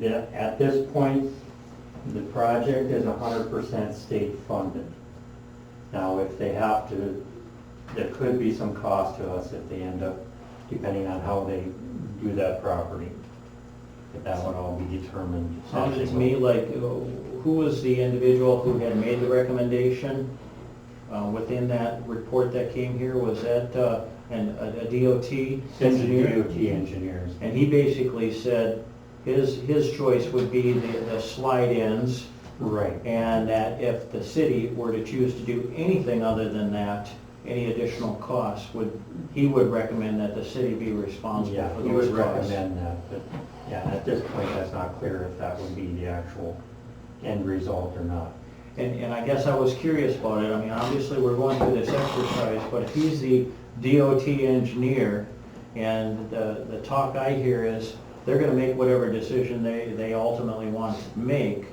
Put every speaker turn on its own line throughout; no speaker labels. that at this point, the project is hundred percent state funded. Now, if they have to, there could be some cost to us if they end up, depending on how they do that property. But that would all be determined.
Sounded to me like, uh, who was the individual who had made the recommendation uh, within that report that came here? Was that uh, an- a a DOT
Since the
engineer?
DOT engineers.
And he basically said his, his choice would be the the slide ends,
Right.
and that if the city were to choose to do anything other than that, any additional costs would, he would recommend that the city be responsible
Yeah,
for
he would
those costs.
recommend that, but, yeah, at this point, that's not clear if that would be the actual end result or not.
And, and I guess I was curious about it, I mean, obviously, we're going through this exercise, but if he's the DOT engineer, and the, the talk I hear is, they're gonna make whatever decision they, they ultimately want to make,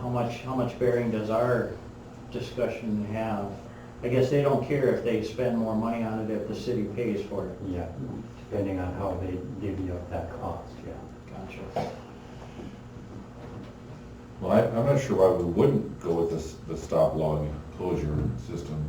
how much, how much bearing does our discussion have? I guess they don't care if they spend more money on it if the city pays for it.
Yeah, depending on how they divvy up that cost, yeah.
Gotcha.
Well, I, I'm not sure why we wouldn't go with this, the stop log closure system.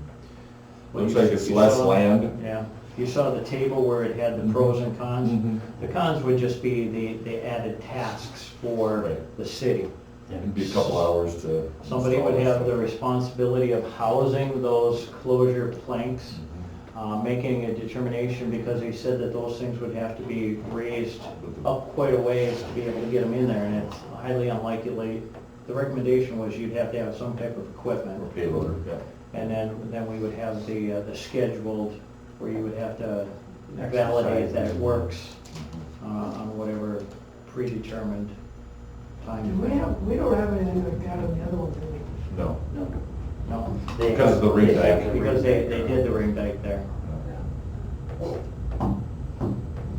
Well,
Looks
you-
like it's
you
less
saw-
land.
Yeah, you saw the table where it had the pros and
Mm-hmm.
Mm-hmm.
cons. The cons would just be the, the added tasks for
Right.
the city.
It'd be a couple hours to.
Somebody would have the responsibility of housing those closure planks, uh, making a determination, because he said that those things would have to be raised up quite a ways to be able to get them in there, and it's highly unlikely. The recommendation was you'd have to have some type of equipment.
Or payloader, yeah.
And then, then we would have the, uh, the scheduled, where you would have to validate that it works uh, on whatever predetermined time.
We have, we don't have anything like that on the other one, do we?
No.
No,
No,
they
Because
have-
of the ring
they have
dike.
the
because they,
ring
they
dike.
did the ring dike there.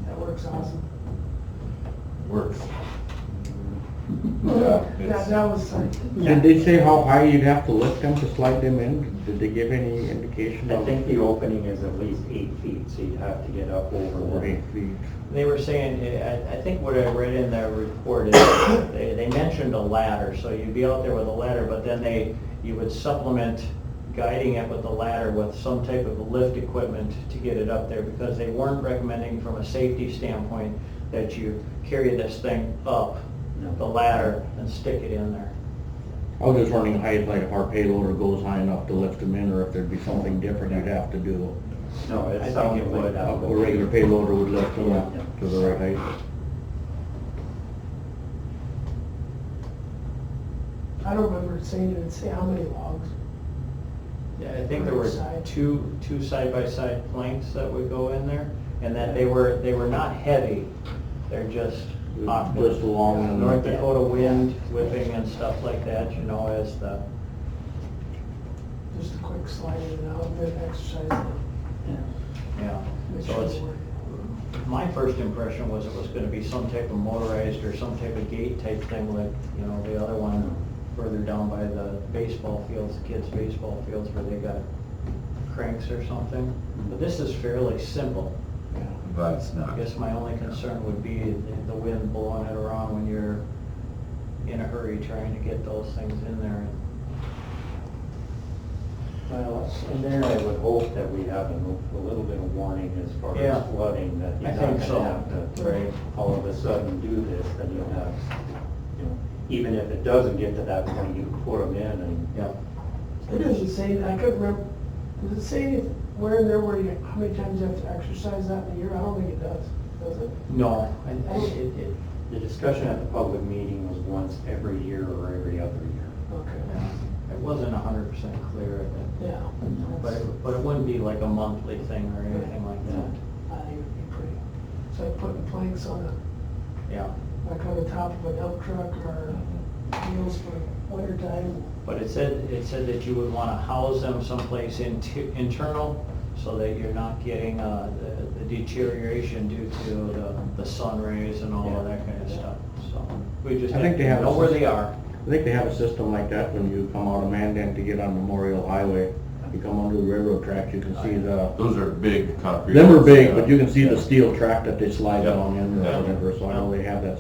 That works awesome.
Works. Yeah,
That,
it's-
that was like,
Did they say how high you'd have to lift them to slide them in? Did they give any indication
I
of?
think the opening is at least eight feet, so you'd have to get up over
Or
the
eight feet.
They were saying, I, I think what I read in their report is, they, they mentioned a ladder, so you'd be out there with a ladder, but then they, you would supplement guiding it with the ladder with some type of lift equipment to get it up there, because they weren't recommending from a safety standpoint that you carry this thing up
No.
the ladder and stick it in there.
I was just wondering height, like if our payloader goes high enough to lift them in, or if there'd be something different you'd have to do.
No,
I
it
think
sounded
it
like
would.
A
that.
a regular payloader would lift them up to the right height.
I don't remember saying, it say how many logs.
Yeah, I think there were
Side.
two, two side-by-side planks that would go in there, and that they were, they were not heavy, they're just awkward.
Just long and-
North Dakota wind whipping and stuff like that, you know, as the,
just a quick slide in and out, and then exercise. and
yeah.
make
So
sure it
it's,
works.
my first impression was it was gonna be some type of motorized or some type of gate type thing like, you know, the other one further down by the baseball fields, the kids' baseball fields where they got cranks or something. But this is fairly simple.
But it's not.
I guess my only concern would be the- the wind blowing it around when you're in a hurry trying to get those things in there.
Well, and there I would hope that we have a a little bit of warning as far
Yeah.
as flooding, that
I
you're not
think so.
gonna have to
Right.
all of a sudden do this, then you'll have, you know, even if it doesn't get to that point, you pour them in and.
Yeah.
It doesn't say, I couldn't remember, does it say where and there, where you, how many times you have to exercise that in a year? I don't think it does, does it?
No, I, I, it, it,
The discussion at the public meeting was once every year or every other year.
Okay.
it wasn't a hundred percent clear, but-
Yeah.
but, it- but it wouldn't be like a monthly thing or anything like that.
I think it'd be pretty, it's like putting planks on a,
Yeah,
like on the top of a dump truck or wheels for winter time.
but it said, it said that you would wanna house them someplace inti- internal so that you're not getting, uh, the- the deterioration due to the, the sun rays and all of that kind of stuff, so. We just
I think
have
they
to
have-
know where they are.
I think they have a system like that when you come out of Mandan to get on Memorial Highway. You come onto the railroad tracks, you can see the,
Those are big concrete.
them are big,
ones,
but
yeah.
you can see the
Yeah.
steel track that they slide
Yeah.
down in or
Yeah.
whatever, so I know they have that